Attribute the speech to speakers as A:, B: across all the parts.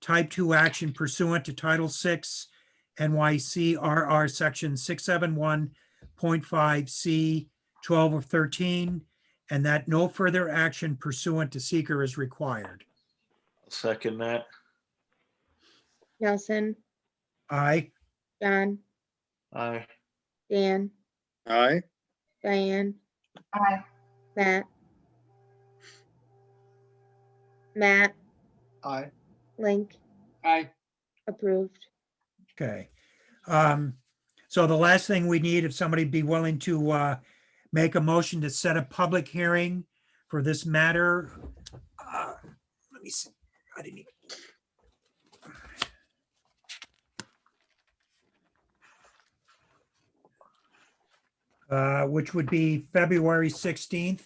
A: type 2 action pursuant to Title 6 NYC RR Section 671.5C 12 of 13, and that no further action pursuant to seeker is required.
B: Second that.
C: Nelson,
A: Aye.
C: John,
B: Aye.
C: Dan,
D: Aye.
C: Diane,
E: Aye.
C: Matt. Matt,
D: Aye.
C: Link,
D: Aye.
C: approved.
A: Okay. Um, So the last thing we need, if somebody be willing to uh, make a motion to set a public hearing for this matter. uh, Let me see. I didn't. Uh, Which would be February 16th.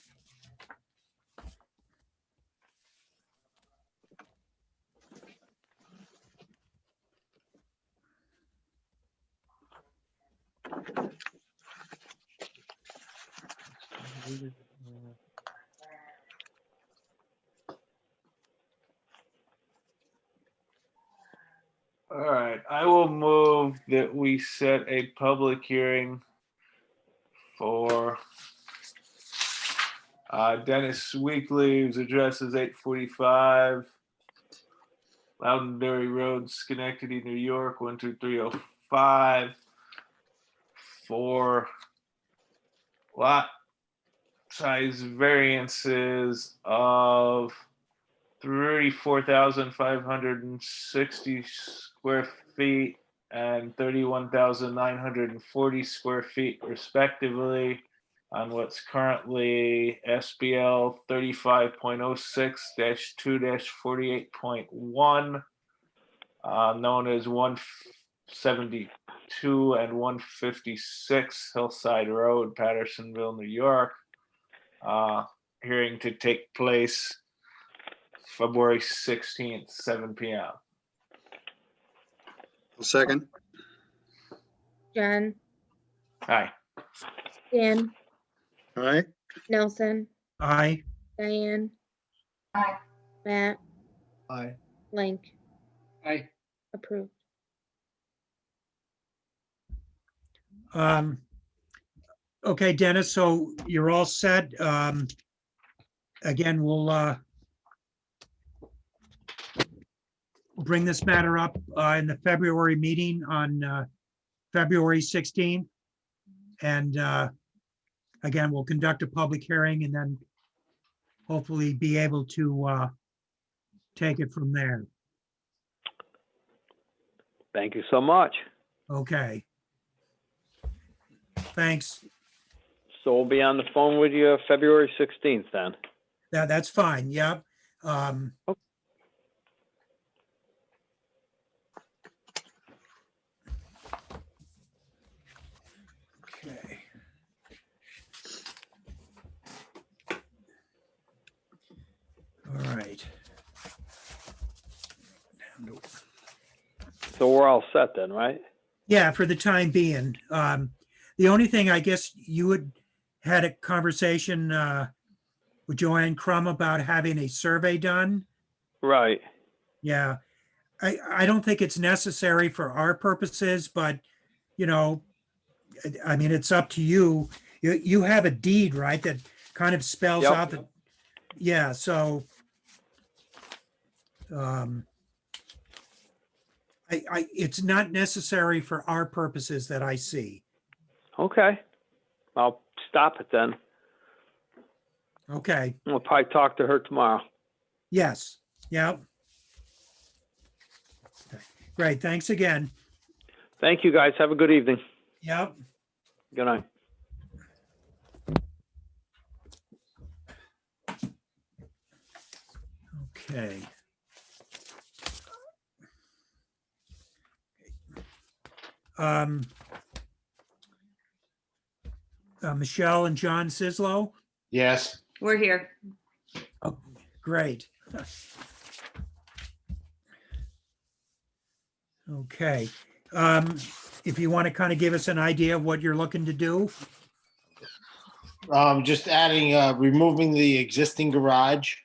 B: All right, I will move that we set a public hearing for uh, Dennis Weekly, whose address is eight forty-five Loudonberry Road, Schenectady, New York, one two three oh five for lot size variances of thirty-four thousand five hundred and sixty square feet and thirty-one thousand nine hundred and forty square feet respectively on what's currently SBL thirty-five point oh six two forty-eight point one, uh, known as one seventy-two and one fifty-six Hillside Road, Pattersonville, New York. Uh, Hearing to take place February sixteenth, seven P M.
D: Second.
C: John,
B: Hi,
C: Dan,
D: Aye.
C: Nelson,
A: Aye.
C: Diane,
E: Aye.
C: Matt,
D: Aye.
C: Link,
D: Aye.
C: approved.
A: Um, okay, Dennis, so you're all set. Um, again, we'll, uh, bring this matter up, uh, in the February meeting on, uh, February 16th. And, uh, again, we'll conduct a public hearing and then hopefully be able to, uh, take it from there.
F: Thank you so much.
A: Okay. Thanks.
F: So we'll be on the phone with you February 16th then.
A: That, that's fine, yep. Um.
F: Oh.
A: Okay. All right. Down to
F: So we're all set then, right?
A: yeah, for the time being. Um, the only thing I guess you would had a conversation uh, with Joanne Crum about having a survey done.
F: Right.
A: Yeah. I, I don't think it's necessary for our purposes, but you know, I- I mean, it's up to you. You, you have a deed, right? That kind of spells
F: Yep.
A: out the, yeah, so. Um. I, I, it's not necessary for our purposes that I see.
F: Okay. I'll stop it then.
A: Okay,
F: We'll probably talk to her tomorrow.
A: yes, yeah. Great, thanks again.
F: Thank you guys. Have a good evening.
A: Yep.
F: Good night.
A: Okay. Um, uh, Michelle and John Sislo,
B: yes.
E: We're here.
A: great. Okay, um, if you want to kind of give us an idea of what you're looking to do,
G: Um, just adding, uh, removing the existing garage.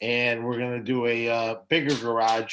G: And we're gonna do a, uh, bigger garage